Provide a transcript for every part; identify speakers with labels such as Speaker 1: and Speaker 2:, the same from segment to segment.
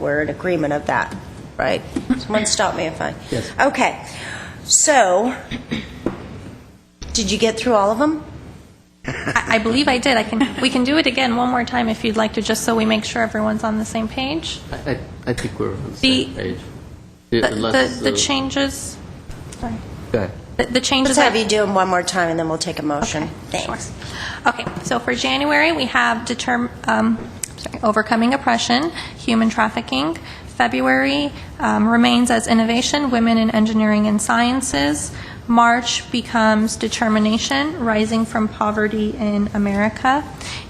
Speaker 1: We're in agreement of that, right? Someone stop me if I...
Speaker 2: Yes.
Speaker 1: Okay. So, did you get through all of them?
Speaker 3: I I believe I did. I can, we can do it again one more time if you'd like to, just so we make sure everyone's on the same page.
Speaker 2: I, I- I think we're on the
Speaker 3: The-
Speaker 2: same page.
Speaker 3: The-
Speaker 2: Unless,
Speaker 3: The the
Speaker 2: uh,
Speaker 3: changes, sorry,
Speaker 2: go ahead.
Speaker 3: the the changes.
Speaker 1: Let's have
Speaker 3: that-
Speaker 1: you do them one more time, and then we'll take a motion.
Speaker 3: Okay, sure.
Speaker 1: Thanks.
Speaker 3: Okay, so for January, we have determ, um, sorry, overcoming oppression, human trafficking. February um, remains as innovation, women in engineering and sciences. March becomes determination, rising from poverty in America.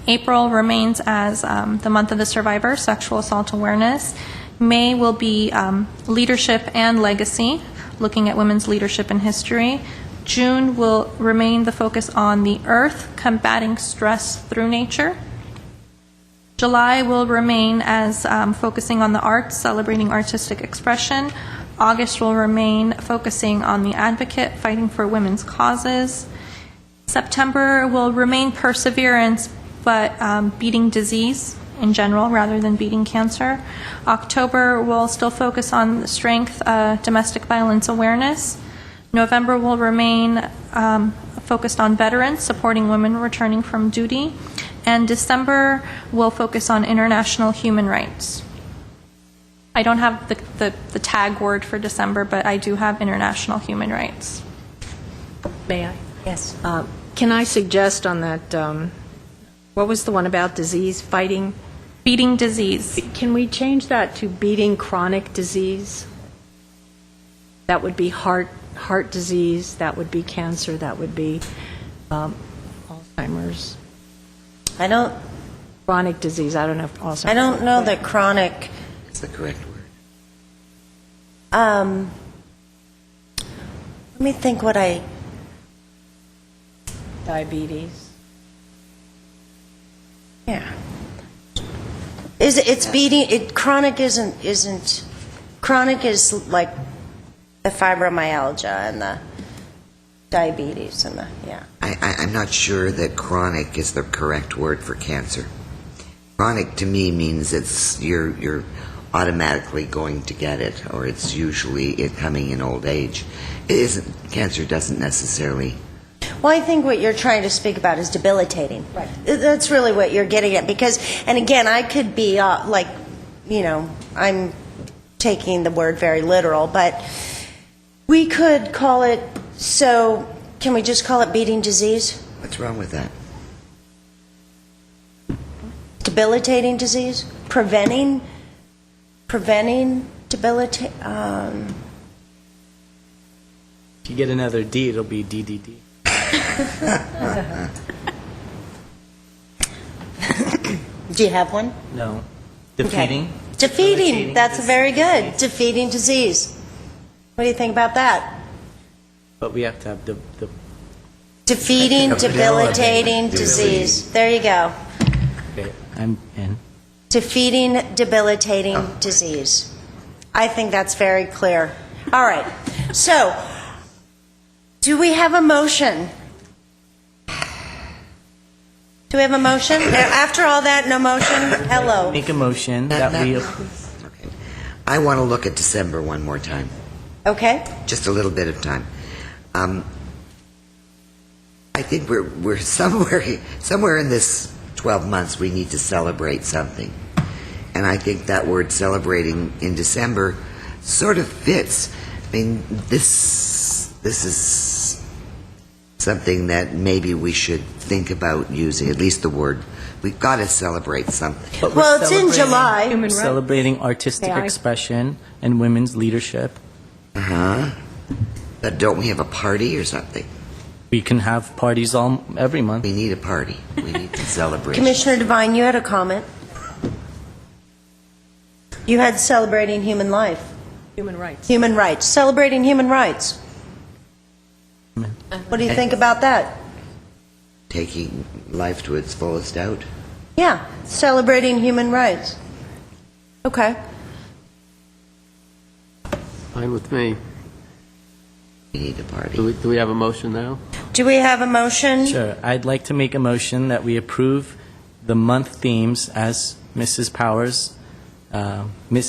Speaker 3: April remains as um, the month of the survivor, sexual assault awareness. May will be um, leadership and legacy, looking at women's leadership in history. June will remain the focus on the earth, combating stress through nature. July will remain as um, focusing on the arts, celebrating artistic expression. August will remain focusing on the advocate, fighting for women's causes. September will remain perseverance, but um, beating disease in general rather than beating cancer. October will still focus on strength, uh, domestic violence awareness. November will remain um, focused on veterans, supporting women returning from duty. And December will focus on international human rights. I don't have the, the, the tag word for December, but I do have international human rights.
Speaker 4: May I?
Speaker 1: Yes.
Speaker 4: Uh, Can I suggest on that, um, what was the one about disease fighting?
Speaker 3: Beating disease.
Speaker 4: Can we change that to beating chronic disease? That would be heart, heart disease, that would be cancer, that would be um, Alzheimer's,
Speaker 1: I don't,
Speaker 4: chronic disease, I don't know if Alzheimer's.
Speaker 1: I don't know that chronic,
Speaker 2: It's the correct word.
Speaker 1: um, let me think what I,
Speaker 4: Diabetes.
Speaker 1: yeah. Is, it- it's beating, it, chronic isn't, isn't, chronic is like the fibromyalgia and the diabetes and the, yeah.
Speaker 5: I, I, I'm not sure that chronic is the correct word for cancer. Chronic to me means it's you're you're automatically going to get it, or it's usually it coming in old age. It isn't cancer doesn't necessarily.
Speaker 1: Well, I think what you're trying to speak about is debilitating. Right. That's really what you're getting at, because, and again, I could be, uh, like, you know, I'm taking the word very literal, but we could call it, so, can we just call it beating disease?
Speaker 5: What's wrong with that?
Speaker 1: Debilitating disease? Preventing, preventing debilita, um,
Speaker 6: If you get another D, it'll be DDD.
Speaker 1: do you have one?
Speaker 6: No.
Speaker 1: Okay.
Speaker 6: Defeating?
Speaker 1: Defeating,
Speaker 6: Debilitating
Speaker 1: that's
Speaker 6: dis-
Speaker 1: very good. Defeating disease. What do you think about that?
Speaker 6: But we have to have the, the
Speaker 1: Defeating debilitating
Speaker 5: Debilitating
Speaker 1: disease.
Speaker 5: disease.
Speaker 1: There you go.
Speaker 6: okay, I'm in.
Speaker 1: Defeating debilitating disease. I think that's very clear. All right. So, do we have a motion? Do we have a motion? After all that, no motion? Hello.
Speaker 6: Make a motion that we,
Speaker 5: Okay. I want to look at December one more time.
Speaker 1: Okay.
Speaker 5: just a little bit of time. Um, I think we're we're somewhere somewhere in this 12 months we need to celebrate something, and I think that word celebrating in December sort of fits. I mean, this this is something that maybe we should think about using at least the word. We've got to celebrate something.
Speaker 6: but we're
Speaker 1: Well, it's in
Speaker 6: celebrating-
Speaker 1: July.
Speaker 4: Human
Speaker 6: We're
Speaker 4: rights.
Speaker 6: celebrating artistic
Speaker 4: May I?
Speaker 6: expression and women's leadership.
Speaker 5: Uh huh. But don't we have a party or something?
Speaker 6: We can have parties all every month.
Speaker 5: We need a party. We need to celebrate.
Speaker 1: Commissioner Devine, you had a comment. You had celebrating human life,
Speaker 4: Human rights.
Speaker 1: human rights, celebrating human rights. What do you think about that?
Speaker 5: taking life to its fullest out.
Speaker 1: Yeah, celebrating human rights. Okay.
Speaker 7: Fine with me.
Speaker 5: We need
Speaker 7: Do
Speaker 5: a party.
Speaker 7: we, do we have a motion now?
Speaker 1: Do we have a motion?
Speaker 6: Sure. I'd like to make a motion that we approve the month themes as Mrs. Powers, uh, Ms.